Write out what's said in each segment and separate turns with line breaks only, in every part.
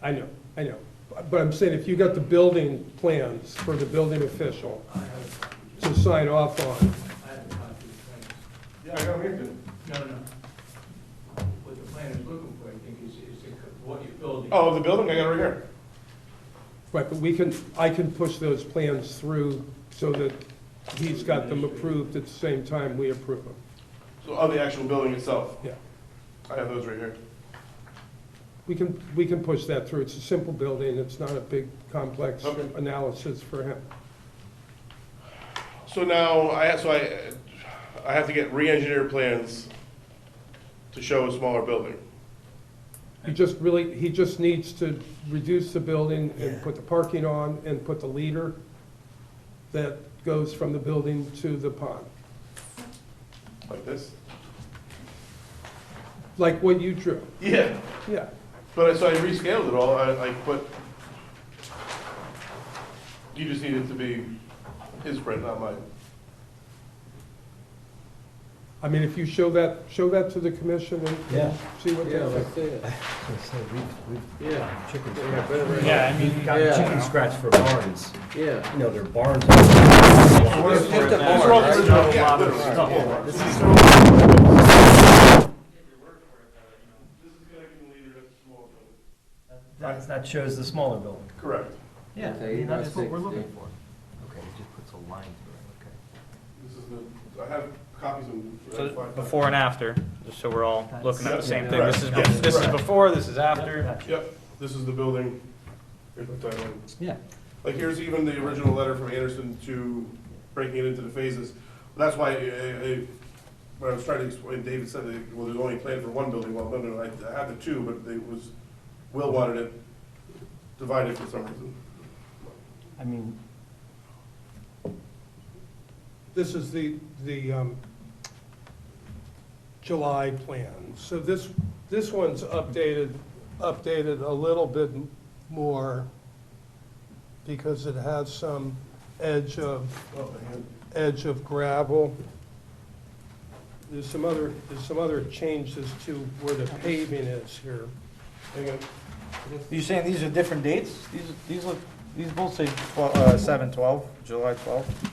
I know, I know. But I'm saying, if you got the building plans for the building official
I have,
to sign off on,
I have a copy of the plans.
Yeah, I got it here.
No, no. What the plan is looking for, I think, is, is the co- what you're building.
Oh, the building, I got it right here.
right, but we can, I can push those plans through so that he's got them approved at the same time we approve them.
So, oh, the actual building itself.
Yeah.
I have those right here.
We can, we can push that through. It's a simple building. It's not a big, complex
Okay.
analysis for him.
So now, I, so I, I have to get re-engineered plans to show a smaller building.
He just really, he just needs to reduce the building
Yeah.
and put the parking on and put the leader that goes from the building to the pond.
Like this?
Like what you drew,
Yeah,
yeah.
but, I- so I rescaled it all, I, I put, you just need it to be his print, not mine.
I mean, if you show that, show that to the commission and
Yeah.
see what they think.
see it. Yeah.
Chicken
Yeah,
scratch.
better-
Yeah, I mean,
Got
Yeah.
chicken scratch for barns,
Yeah.
you know, they're barns.
It's just a
It's
barn,
all
right?
original,
Not a
yeah,
lot of
literally,
stuff.
yeah.
This is- That's, that shows the smaller building.
Correct,
Yeah, I mean, that's what we're looking
for. Okay, it just puts a line through
this is the, I have copies of. I have
So
five
before and after, just so we're all looking at the same thing. This is,
Yeah, correct.
this is
Correct.
before, this is
it,
after.
okay.
Yep, this is the building, here's the title.
Yeah.
Like, here's even the original letter from Anderson to breaking it into the phases. That's why, I- I- I- when I was trying to explain, David said, that, well, there's only plan for one building, well, no, no, I I had the two, but they was, Will wanted it divided for some reason.
I mean,
This is the, the um, July plan. So this, this one's updated, updated a little bit more because it has some edge of, edge of gravel. There's some other, there's some other changes to where the paving is here.
Hang on.
You're saying these are different dates? These, these look, these both say twelve, uh, seven, twelve, July twelfth,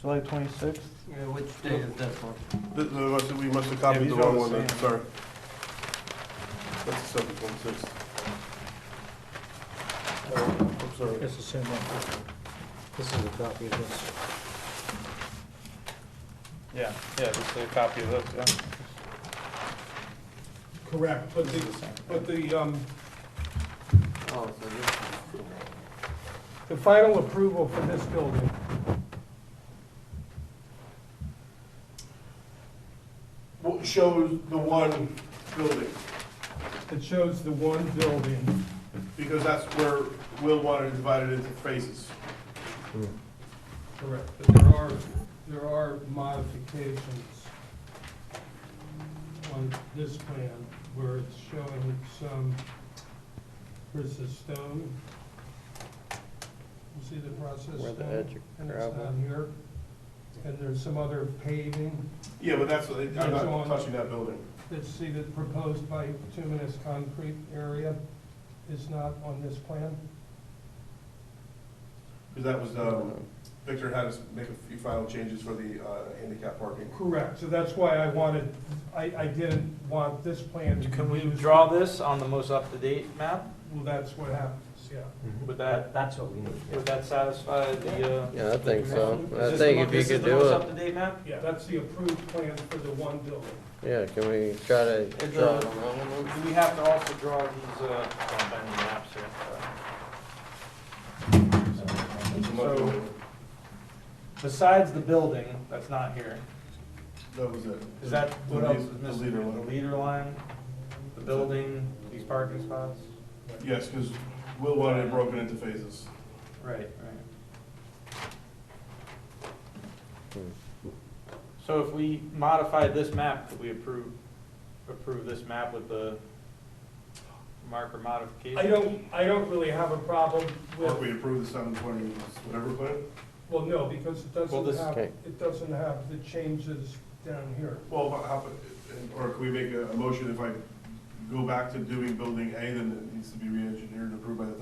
July twenty-sixth?
Yeah, which date is that for?
Th- th- We must- we must have
Yeah,
copied
these
the
are all
wrong one,
the
then,
same.
sorry. That's the seven point six. Oh, I'm sorry.
It's the same one.
This is a copy of this.
Yeah, yeah, this is a copy of those, yeah.
Correct, but the, but the, um,
Oh, so this.
the final approval for this building
What Shows the one building.
It shows the one building.
Because that's where Will wanted to divide it into phases.
Correct. But there are, there are modifications on this plan where it's showing some, here's the stone. You see the process?
Where the
stone?
edge of
And it's
gravel.
down here. And there's some other paving
Yeah, but that's, I'm
That's
not
on-
touching that building.
that's see that proposed by bituminous concrete area is not on this plan.
Because that was, um, Victor had us make a few final changes for the uh, handicap parking.
Correct, so that's why I wanted, I, I didn't want this plan to.
Can we
use-
draw this on the most up-to-date map?
Well, that's what happens, yeah.
Mm-hmm.
Would that,
That, that's what we need. yeah.
would that satisfy the, uh?
Yeah, I think so. I
Is
think if
this the mo-
you
this is
could
the
do
most
it,
Up-to-date map?
Yeah, that's the approved plan for the one building.
yeah, can we try to
It's
draw
a-
it on that one?
Do we have to also draw these, uh, on the maps here? So- Besides the building, that's not here,
That was it.
is that, what
The
else
lead-
is
the
missing?
leader
The
one.
leader line, the building, these parking spots?
Yes, because Will wanted it broken into phases.
Right, right. So if we modify this map, could we approve, approve this map with the marker modification?
I don't, I don't really have a problem
Or
with,
we approved the seven twenty, whatever plan.
well, no, because it
Well,
doesn't
this-
have,
Okay.
it doesn't have the changes down here.
Well, how, how- or can we make a a motion if I go back to doing building A, then it needs to be re-engineered